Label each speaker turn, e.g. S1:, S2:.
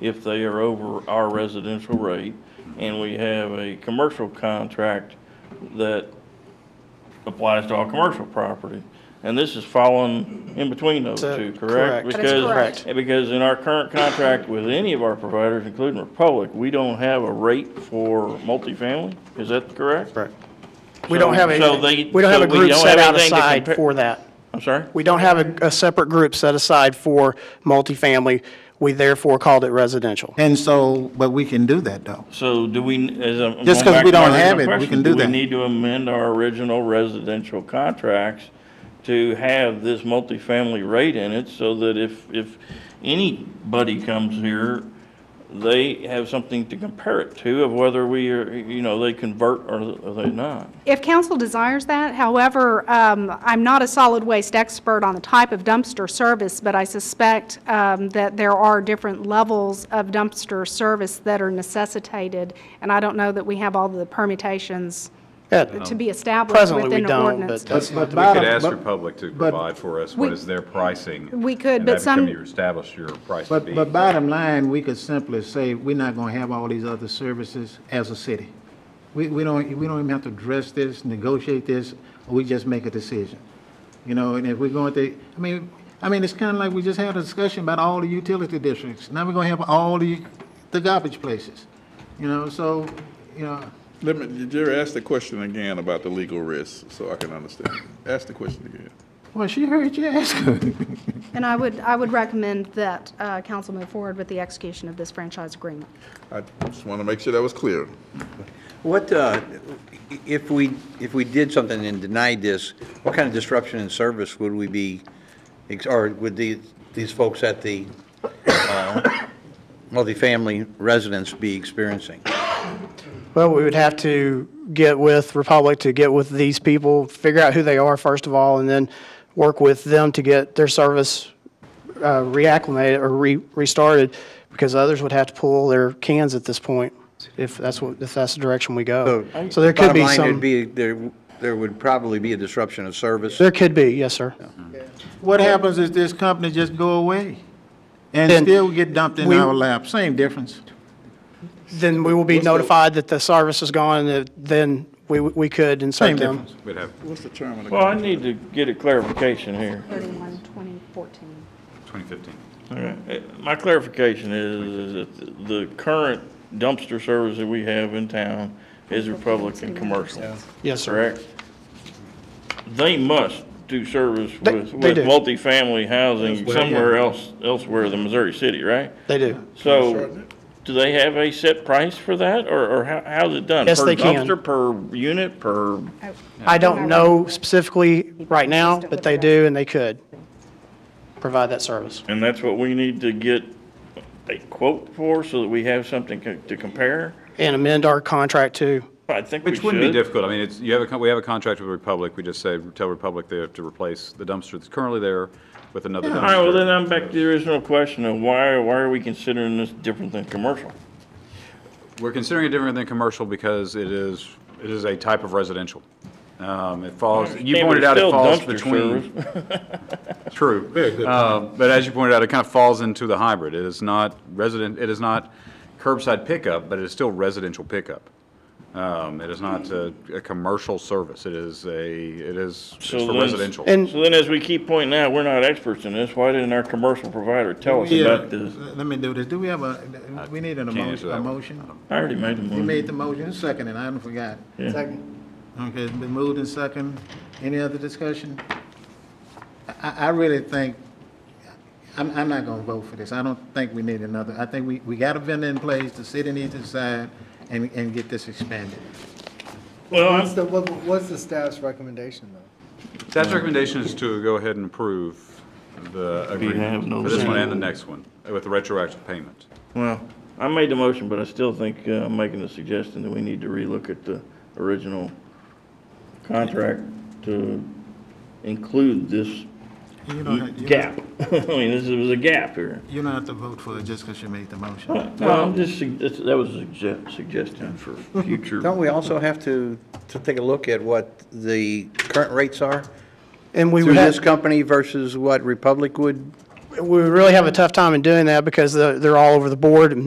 S1: if they are over our residential rate. And we have a commercial contract that applies to all commercial property. And this is falling in between those
S2: So,
S1: two, correct?
S2: correct.
S3: That is
S1: Because-
S3: correct.
S1: Because in our current contract with any of our providers, including Republic, we don't have a rate for multifamily, is that correct?
S2: Correct. We don't have
S1: So
S2: a,
S1: they-
S2: we don't have
S1: so
S2: a group
S1: don't
S2: set
S1: have
S2: out
S1: anything to
S2: aside
S1: compare-
S2: for that.
S1: I'm sorry?
S2: We don't have a, a separate group set aside for multifamily. We therefore called it residential.
S4: And so, but we can do that, though.
S1: So do we, as I'm.
S4: Just
S1: going
S4: 'cause
S1: back to my
S4: we don't
S1: original
S4: have it, we
S1: question,
S4: can do that.
S1: we need to amend our original residential contracts to have this multifamily rate in it so that if, if anybody comes here, they have something to compare it to of whether we are, you know, they convert or or they not?
S3: If council desires that, however, um, I'm not a solid waste expert on the type of dumpster service, but I suspect um, that there are different levels of dumpster service that are necessitated, and I don't know that we have all the permutations
S2: Yeah.
S3: to be established
S2: Presently, we
S3: within an
S2: don't,
S3: ordinance.
S2: but that's not the-
S5: We could
S4: bottom-
S5: ask
S4: Uh, but-
S5: Republic to
S4: but-
S5: provide for us
S3: We-
S5: what is their pricing.
S3: we could,
S5: and
S3: but
S5: that
S3: some-
S5: become your establish your price to
S4: But,
S5: be.
S4: but bottom line, we could simply say, we're not gonna have all these other services as a city. We, we don't, we don't even have to address this, negotiate this, we just make a decision. You know, and if we're going to, I mean, I mean, it's kinda like we just had a discussion about all the utility districts. Now we're gonna have all the, the garbage places, you know, so, you know,
S6: Let me, Jerry, ask the question again about the legal risk, so I can understand. Ask the question again.
S4: well, she heard you ask her.
S3: And I would, I would recommend that uh, council move forward with the execution of this franchise agreement.
S6: I just want to make sure that was clear.
S7: What, uh, if we, if we did something and denied this, what kind of disruption in service would we be, ex- or would the- these folks at the uh, multifamily residence be experiencing?
S2: Well, we would have to get with Republic to get with these people, figure out who they are first of all, and then work with them to get their service uh, reacclimated or re- restarted, because others would have to pull their cans at this point, if that's what, if that's the direction we go. So there could be
S7: Bottom line,
S2: some,
S7: there'd be, there, there would probably be a disruption of service.
S2: there could be, yes, sir.
S4: What happens is this company just go away and
S2: Then
S4: still get dumped in
S2: we-
S4: our lap, same difference.
S2: Then we will be
S6: the-
S2: notified that the service is gone, and that then we, we could insert
S4: Same
S2: them.
S4: difference.
S5: We'd have
S6: What's the term of the
S1: Well, I need
S6: contract?
S1: to get a clarification here.
S3: 31, 2014.
S5: 2015.
S1: Okay. Uh, My clarification is, is that the current dumpster service that we have in town is Republican commercial.
S2: Yes, sir.
S1: Correct? They must do service
S2: They-
S1: with,
S2: they
S1: with
S2: do.
S1: multifamily housing somewhere else, elsewhere than Missouri City, right?
S2: They do.
S1: So, do they have a set price for that, or, or how, how's it done?
S2: Yes, they can.
S1: Per dumpster, per unit, per,
S2: I don't know specifically right now, but they do, and they could provide that service.
S1: and that's what we need to get a quote for, so that we have something co- to compare?
S2: And amend our contract too.
S1: I think we should.
S5: Which wouldn't be difficult. I mean, it's, you have a, con- we have a contract with Republic. We just say, tell Republic they have to replace the dumpster that's currently there with another dumpster.
S1: All right, well, then I'm back to the original question of why, why are we considering this different than commercial?
S5: We're considering it different than commercial because it is, it is a type of residential. Um, It falls, you
S1: Can't we
S5: pointed out it
S1: still
S5: falls
S1: dumpster
S5: between.
S1: service?
S5: True. Uh, But as you pointed out, it kind of falls into the hybrid. It is not resident, it is not curbside pickup, but it is still residential pickup. Um, It is not a, a commercial service. It is a, it is it's
S1: So
S5: for
S1: then-
S5: residential.
S2: And-
S1: So then, as we keep pointing out, we're not experts in this, why didn't our commercial provider tell us
S4: Yeah,
S1: about this?
S4: Let me do this. Do we have a, we need an
S5: can't
S1: uh,
S4: emotion,
S5: answer that
S4: a
S5: one.
S4: motion?
S1: I already made the
S4: You
S1: motion.
S4: made the motion, second, and I done forgot.
S1: Yeah.
S4: Okay, it's been moved and second. Any other discussion? I, I really think, I'm, I'm not gonna vote for this. I don't think we need another. I think we, we got a vendor in place, the city needs to decide and, and get this expanded.
S1: Well,
S8: What's
S1: I'm-
S8: the, what- what's the staff's recommendation, though?
S5: Staff's recommendation is to go ahead and approve the
S1: have no
S5: agreement for this one
S1: say.
S5: and the next one uh, with the retroactive payment.
S1: well, I made the motion, but I still think, uh, I'm making the suggestion that we need to relook at the original contract to include this
S4: You don't, have- you don't-
S1: gap. I mean, this was a gap here.
S4: you don't have to vote for it just because you made the motion.
S1: Well, I'm just, sug- that's- that was a sugge- suggestion for future.
S7: Don't we also have to, to take a look at what the current rates are
S2: And we
S7: through
S2: would
S7: this
S2: have,
S7: company versus what Republic would
S2: we would really have a tough time in doing that because they're they're all over the board, and